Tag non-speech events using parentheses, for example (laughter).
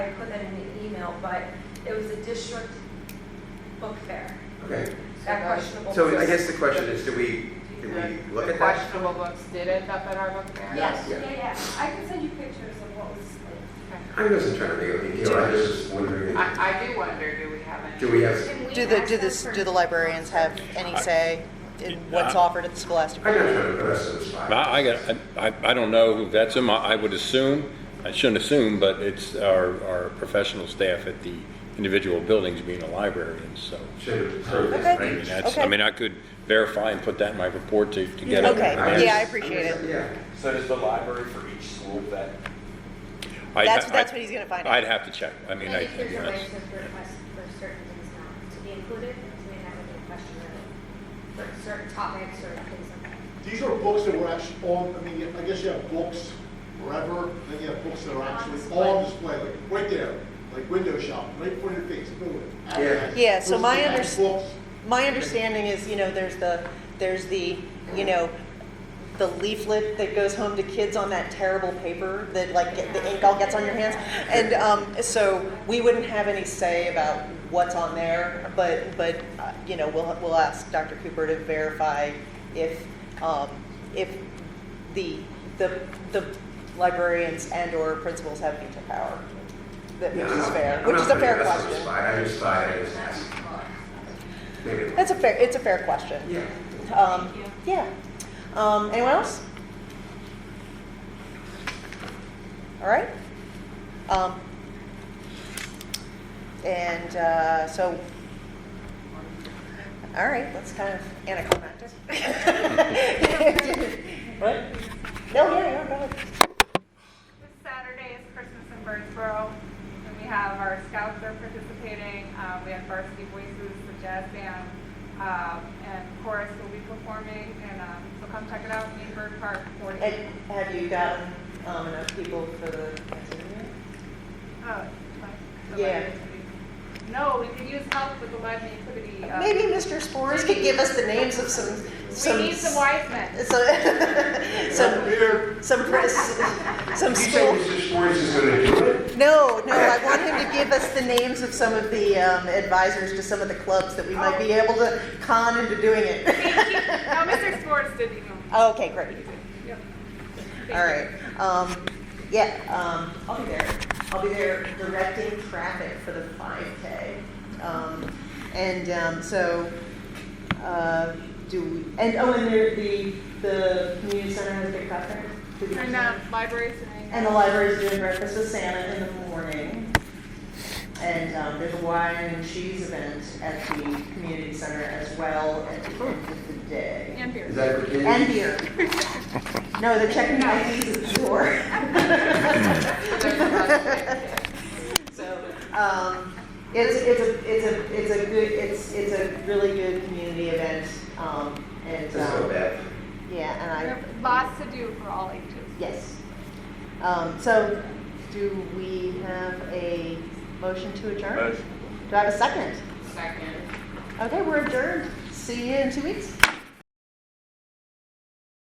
I put that in the email, but it was a district book fair, Okay, that questionable. so I books. guess the question is, do we, do we look The at that? questionable books did end up at our book fair? Yes, Yeah. yeah, yeah. I can send you pictures of what was displayed. I wasn't trying to make a big deal, I was just wondering, I, I do wonder, do we have any? do we have, Can we Do the, ask do them this, for- do the librarians have any say in what's offered at the Scholastic? I'm not trying to put us on the spot. I, I got, I, I don't know who vets them, I, I would assume, I shouldn't assume, but it's our, our professional staff at the individual buildings being a librarian, so. Should Okay. I mean, have. that's, I Okay. mean, I could verify and put that in my report to, to get. it. Okay, yeah, I appreciate it. Yeah. So does the library for each school vet? I'd That's, ha- that's I'd- what he's gonna find out. I'd have to check, I mean, I. Maybe there's a that's- way to request for certain things not to be included, because we have a question for certain topics or things like that. These are books that were actually on, I mean, I guess you have books wherever, then you have books that are actually on display, like right there, like window shop, right in front of your face, boom. advertising. Yeah, so my Versus the books. My understanding is, you know, there's the, there's the, you know, the leaflet that goes home to kids on that terrible paper that like get- the ink all gets on your hands. And um, so we wouldn't have any say about what's on there, but, but, uh, you know, we'll, we'll ask Dr. Cooper to verify if, um, if the, the, the librarians and or principals have veto power. That Yeah, which I'm is not- fair, I'm which not is a putting fair us on the spot. question. I just thought I was asking. Maybe. not. That's a fair, it's a fair question. Yeah. Um, yeah. Um, anyone else? All right. Um, and uh, so, all right, that's kind of anticlimactic. (laughs) what? No, yeah, yeah, go ahead. This Saturday is Christmas in Birdsboro, and we have our scouts are participating. Um, we have Varsity Voices, the jazz band, um, and chorus will be performing. And um, so come check it out in Bird Park. 40. And have you gotten um, enough people for the next interview? Oh, like the Yeah. live activity. No, we could use help with the live activity. Uh, Maybe Mr. Spores could give us the names of some. some we need some wise men. So, Over (laughs) some, here, some, press- some You say school. Mr. Schwartz is gonna do it? No, no, I want him to give us the names of some of the um, advisors to some of the clubs that we might be Oh. able to con into doing it. (laughs) no, Mr. Sports didn't even. Okay, great. Yep. All right. Um, yeah, um, I'll be there. I'll be there directing traffic for the 5K. Um, and um, so, uh, do we, and oh, and there, the, the community center has a big craft fair? Did we- And um, libraries and. And the library's doing breakfast with Santa in the morning. And um, there's a wine and cheese event at the community center as well at the end of the day. and beer. Is that what you And beer. No, they're checking IDs at the door. (laughs) So, um, it's, it's a, it's a, it's a good, it's, it's a really good community event. Um, and, That's so um, bad. yeah, and I. We have Lots to do for all ages. Yes. Um, So do we have a motion to adjourn? Do I have a second? Second. Okay, we're adjourned. See you in two weeks.